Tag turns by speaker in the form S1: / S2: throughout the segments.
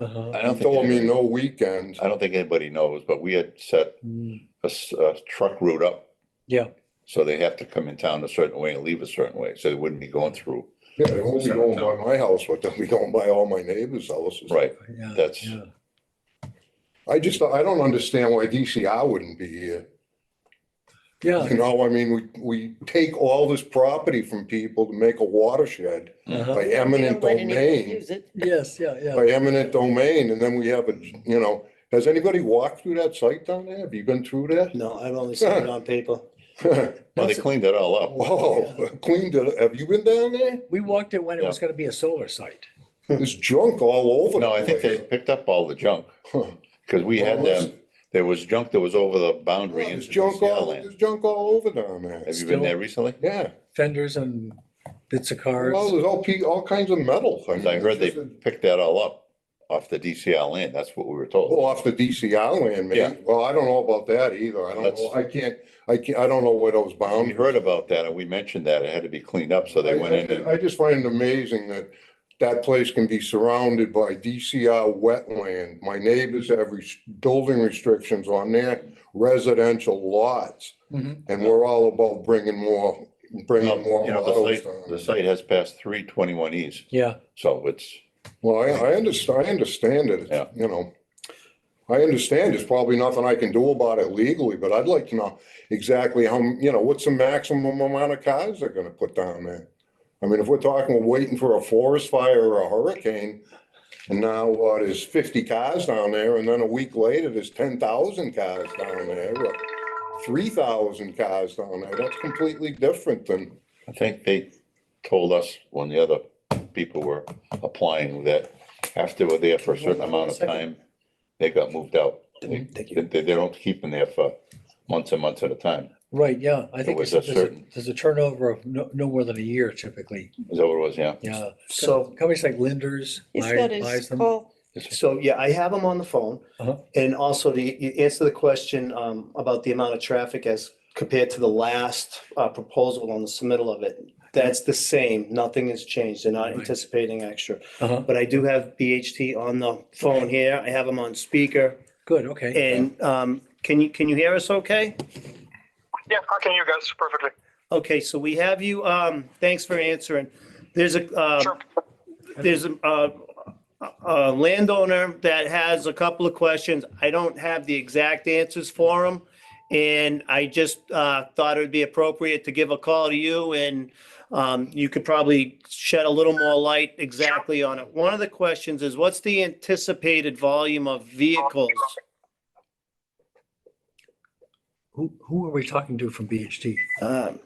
S1: Uh-huh.
S2: I
S3: He
S2: don't
S3: told me
S2: think,
S3: no weekends.
S2: I don't think anybody knows, but we had set
S1: Mm,
S2: a, s- a truck route up.
S1: Yeah.
S2: So they have to come in town a certain way and leave a certain way, so they wouldn't be going through.
S3: Yeah, they won't be going by my house, but they'll be going by all my neighbors' houses.
S2: Right,
S1: Yeah,
S2: That's-
S1: yeah.
S3: I just, I don't understand why DCR wouldn't be here.
S1: Yeah,
S3: You know, I mean, we, we take all this property from people to make a watershed
S1: uh-huh.
S3: by
S4: They
S3: eminent
S4: don't let anybody
S3: domain,
S4: Use it.
S1: yes, yeah, yeah.
S3: by eminent domain, and then we have a, you know, has anybody walked through that site down there? Have you been through
S5: No, I've only seen it on paper.
S3: that?
S2: well, they cleaned it all up.
S3: Whoa, cleaned it, have you been down there?
S1: We walked it when it
S2: Yeah.
S1: was gonna be a solar site.
S3: There's junk all over.
S2: No, I
S3: the
S2: think they
S3: place.
S2: picked up all the junk,
S3: Huh.
S2: because we had
S3: Well, it's-
S2: them, there was junk that was over the boundary.
S3: There's
S2: into
S3: junk
S2: DCR
S3: all,
S2: land.
S3: there's junk all over down there.
S2: Have you
S1: Still-
S2: been there recently?
S3: Yeah.
S1: Fenders and bits of
S3: Well,
S1: cars.
S3: there's all, pe- all kinds of metal. mean,
S2: I heard they
S3: it's just a-
S2: picked that all up off the DCR land, that's what we were told.
S3: Oh, off the DCR land,
S2: Yeah.
S3: man. Well, I don't know about that either. I don't,
S2: That's-
S3: know. I can't, I can't, I don't know where those
S2: We
S3: bound.
S2: heard about that and we mentioned that. It had to be cleaned up, so they went in and,
S3: um, I just find it amazing that that place can be surrounded by DCR wetland. My neighbors have res- building restrictions on their residential lots.
S1: Mhm.
S3: And we're all about bringing more, bringing more.
S2: you know, the
S3: autos
S2: site,
S3: down.
S2: the site has passed three twenty-one Es,
S1: Yeah,
S2: so it's,
S3: Well, I, I understand, I understand it,
S2: Yeah.
S3: It's, you know. I understand there's probably nothing I can do about it legally, but I'd like to know exactly how, m- you know, what's the maximum amount of cars they're gonna put down there? I mean, if we're talking, we're waiting for a forest fire or a hurricane, and now what, there's fifty cars down there, and then a week later, there's ten thousand cars down there, or three thousand cars down there, that's completely different than,
S2: I think they told us when the other people were applying that after we're there for a certain amount of time, they got moved out. They,
S5: Thank you.
S2: they, they don't keep them there for months and months at a time.
S1: right, yeah. I think
S2: was
S1: it's-
S2: a
S1: there's a
S2: certain-
S1: there's a turnover of no, no more than a year typically.
S2: Is that what it was? Yeah.
S1: Yeah.
S5: So,
S1: Companies like Linders.
S4: He's
S1: buy-
S4: got
S1: buys
S4: his
S1: them.
S4: call.
S5: so yeah, I have them on the phone.
S1: Uh-huh.
S5: And also to y- answer the question um, about the amount of traffic as compared to the last uh, proposal on the submittal of it. That's the same. Nothing has changed. They're not
S1: Right.
S5: anticipating extra.
S1: Uh-huh.
S5: But I do have BHT on the phone here. I have them on speaker.
S1: Good, okay.
S5: And um, can you, can you hear us okay?
S6: Yeah, I can hear you guys perfectly.
S5: Okay, so we have you, um, thanks for answering. There's a, uh,
S6: Sure.
S5: there's a, uh, a landowner that has a couple of questions. I don't have the exact answers for him. And I just, uh, thought it would be appropriate to give a call to you and, um, you could probably shed a little more light exactly on it. One of the questions is what's the anticipated volume of vehicles?
S1: Who, who are we talking to from BHT?
S5: Um,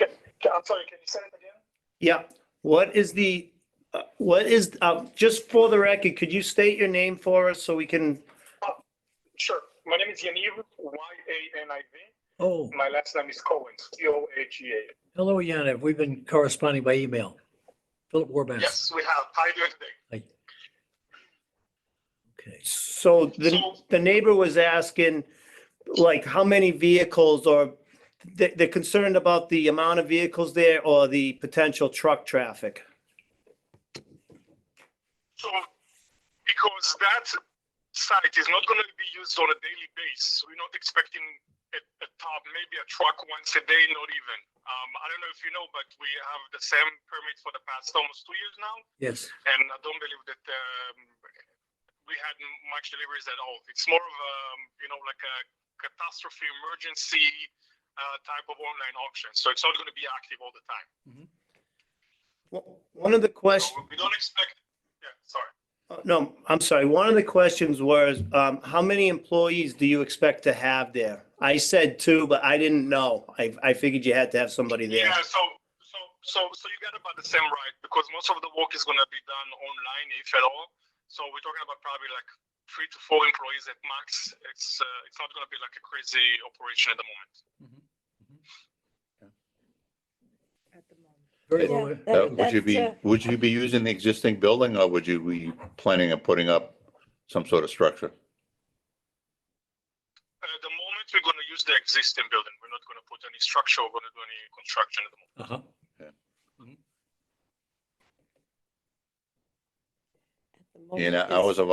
S6: Yeah, I'm sorry, can you say it again?
S5: Yeah, what is the, uh, what is, uh, just for the record, could you state your name for us so we can,
S6: Sure. My name is Yaniv, Y-A-N-I-V.
S1: Oh,
S6: My last name is Cohen, C-O-H-E-A.
S1: hello, Yana. We've been corresponding by email. Philip Warbass.
S6: Yes, we have. How are you doing today?
S1: Okay.
S5: so the, the neighbor was asking, like, how many vehicles or they, they're concerned about the amount of vehicles there or the potential truck traffic?
S6: So, because that site is not going to be used on a daily basis, we're not expecting a, a top, maybe a truck once a day, not even. Um, I don't know if you know, but we have the same permit for the past almost two years now.
S1: Yes,
S6: and I don't believe that um, we had m- much deliveries at all. It's more of a, you know, like a catastrophe emergency uh, type of online auction. So it's not going to be active all the time.
S5: One of the questions.
S6: So we don't expect. Yeah, sorry.
S5: No, I'm sorry. One of the questions was, um, how many employees do you expect to have there? I said two, but I didn't know. I, I figured you had to have somebody there.
S6: Yeah. So so so so you got about the same right because most of the work is going to be done online, if at all. So we're talking about probably like three to four employees at max. It's uh, it's not going to be like a crazy operation at the moment.
S1: very
S2: Yeah.
S1: well.
S2: Uh,
S4: That-
S2: Would you be,
S4: that's, uh,
S2: would you be using the existing building or would you be planning on putting up some sort of structure?
S6: At Uh, the moment, we're going to use the existing building. We're not going to put any structure, we're going to do any construction at the moment.
S1: Uh-huh.
S4: at the moment
S2: In
S4: it's-
S2: hours of